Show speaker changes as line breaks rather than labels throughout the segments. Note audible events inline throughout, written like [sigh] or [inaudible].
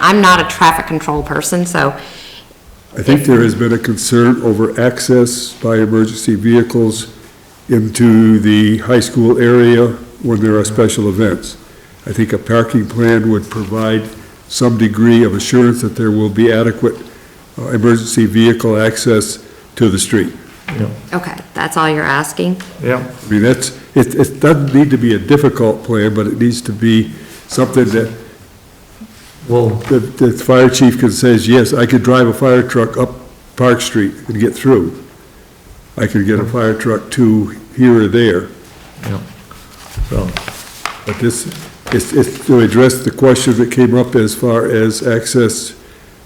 I'm not a traffic control person, so
I think there has been a concern over access by emergency vehicles into the high school area when there are special events. I think a parking plan would provide some degree of assurance that there will be adequate uh, emergency vehicle access to the street.
Okay, that's all you're asking?
Yeah,
I mean, that's, it, it doesn't need to be a difficult plan, but it needs to be something that
well,
the, the fire chief can says, yes, I could drive a fire truck up Park Street and get through. I could get a fire truck to here or there,
yeah, so,
but this, it's, it's to address the question that came up as far as access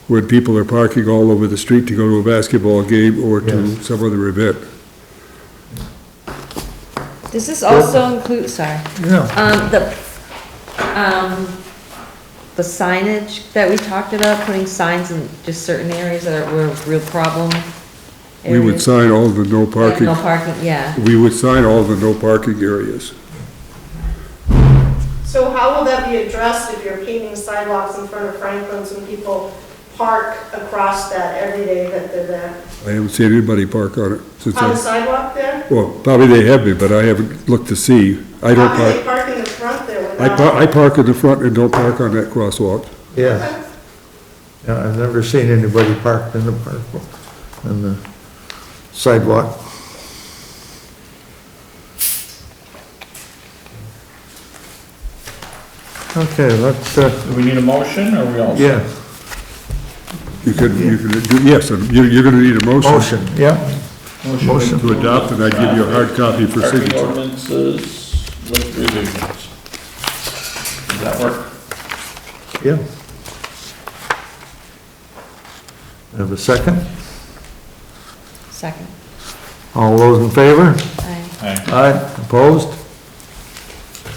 when people are parking all over the street to go to a basketball game or to
Yes.
some other event.
Does this also include, sorry,
yeah,
um, the, um, the signage that we talked about, putting signs in just certain areas that are, were a real problem?
We would
areas?
sign all the no
Like
parking,
No parking, yeah.
we would sign all the no parking areas.
So how will that be addressed if you're painting sidewalks in front of Franklin's and people park across that every day that they're there?
I haven't seen anybody park on it since
On the
I,
sidewalk there?
well, probably they have been, but I haven't looked to see. I don't
How
park.
can they park in the front there
I
without?
park, I park in the front and don't park on that crosswalk.
yeah. Yeah, I've never seen anybody parked in the park, in the sidewalk. Okay, let's, uh,
Do we need a motion, or we all?
yeah,
You could, you could, do- yes, and you're, you're gonna need a motion
motion, yeah,
Motion
to adopt, and I give you a hard copy for
Parking
signature.
ordinances with revisions. Does that work?
yeah. Have a second?
Second.
All those in favor?
Aye.
Aye.
Aye, opposed?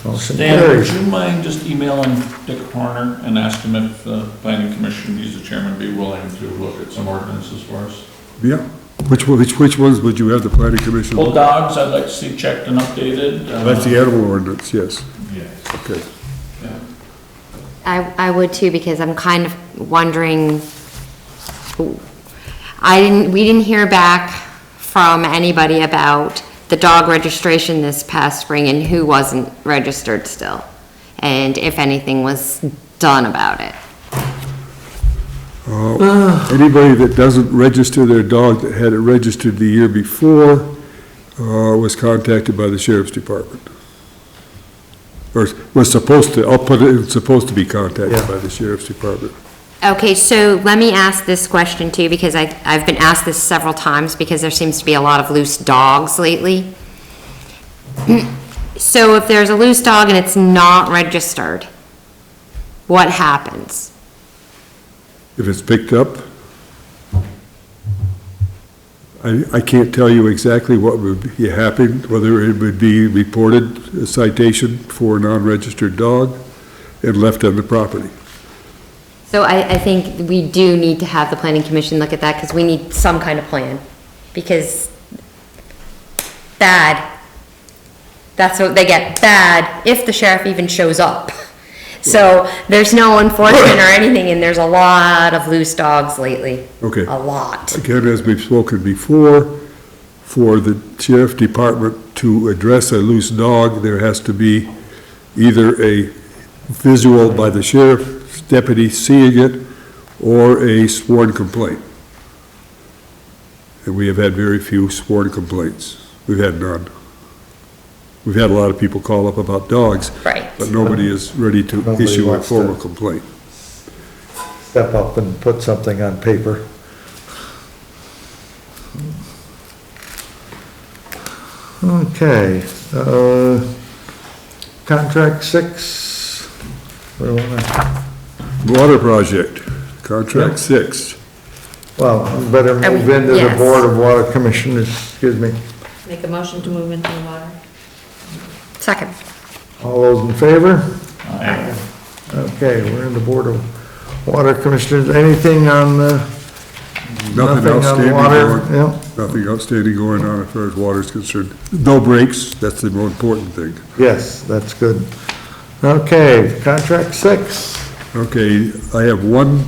Motion
Dan, would
carries.
you mind just emailing Dick Horner and ask him if the planning commission, he's the chairman, be willing to look at some ordinances for us?
Yeah, which, one- which, which ones would you have the planning commission?
Well, dogs, I'd like to see checked and updated. uh,
That's the animal ordinance, yes,
Yes.
okay.
yeah.
I, I would too, because I'm kind of wondering, I didn't, we didn't hear back from anybody about the dog registration this past spring and who wasn't registered still, and if anything was done about it.
Anybody that doesn't register their dog that had it registered the year before, uh, was contacted by the sheriff's department. Or was supposed to, I'll put it, supposed to be contacted
Yeah.
by the sheriff's department.
Okay, so let me ask this question too, because I, I've been asked this several times, because there seems to be a lot of loose dogs lately. So if there's a loose dog and it's not registered, what happens?
If it's picked up? I, I can't tell you exactly what would be happening, whether it would be reported a citation for a non-registered dog and left on the property.
So I, I think we do need to have the planning commission look at that, because we need some kind of plan, because bad, that's what they get, bad, if the sheriff even shows up. [laughs] So there's no enforcement or anything, and there's a lot of loose dogs lately.
Okay.
A lot.
Again, as we've spoken before, for the sheriff department to address a loose dog, there has to be either a visual by the sheriff's deputy seeing it or a sworn complaint. And we have had very few sworn complaints. We've had none. We've had a lot of people call up about dogs,
Right.
but nobody is ready to
Nobody
issue a
wants to-
formal complaint.
Step up and put something on paper. Okay, uh, contract six. we wanna-
Water project, contract six.
Well, we better
Are we-
move into the
yes.
Board of Water Commissioners, excuse me.
Make a motion to move into the water.
Second.
All those in favor?
Aye.
Okay, we're in the Board of Water Commissioners. Anything on the,
Nothing
nothing
outstanding.
on
or-
water? Yeah.
Nothing outstanding going on as far as water is concerned. No breaks, that's the more important thing.
Yes, that's good. Okay, contract six.
Okay, I have one